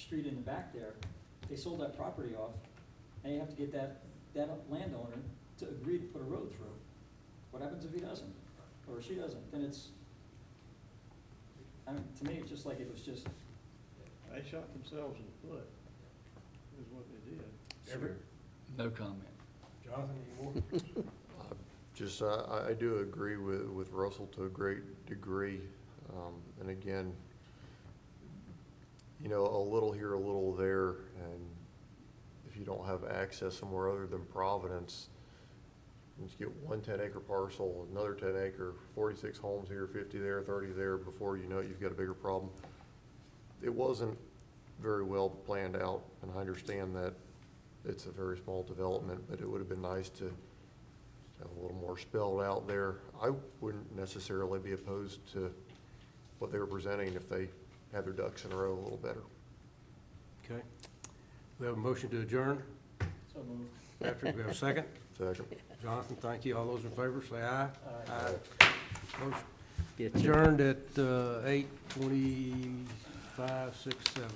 street in the back there, they sold that property off, and you have to get that, that landowner to agree to put a road through. What happens if he doesn't, or she doesn't, then it's, I mean, to me, it's just like it was just, They shot themselves in the foot, is what they did. Every, No comment. Jonathan, any more? Just, I- I, I do agree with, with Russell to a great degree. Um, And again, you know, a little here, a little there, and if you don't have access somewhere other than Providence, you just get one 10-acre parcel, another 10-acre, 46 homes here, 50 there, 30 there, before you know it, you've got a bigger problem. It wasn't very well planned out, and I understand that it's a very small development, but it would have been nice to have a little more spelled out there. I wouldn't necessarily be opposed to what they were presenting if they had their ducks in a row a little better. Okay. We have a motion to adjourn. so moved. Patrick, we have a second. Second. Jonathan, thank you. All those in favor, say aye. Aye. Motion Adjourned at uh, 8:25, 6, 7.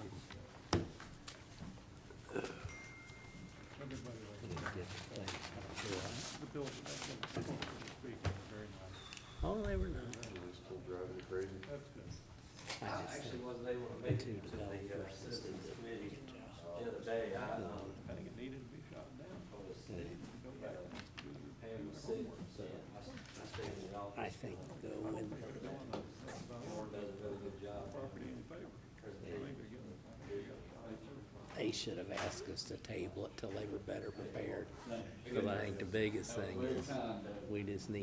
Everybody liked The building, that's what, that's what was speaking, very nice. Oh, they were not. Still driving you crazy? That's good. I just actually wasn't able to make it Two to the uh, developers. citizens committee the other day. I, um, I think it needed to be shot down, told the city, go you back. know, do the- Pam was sick, so I s- I stayed in the office. I think though, when The Board does a really good job. Property in favor. Presentation. they should have asked us to table it till they were better prepared. But I think the biggest thing is, we just need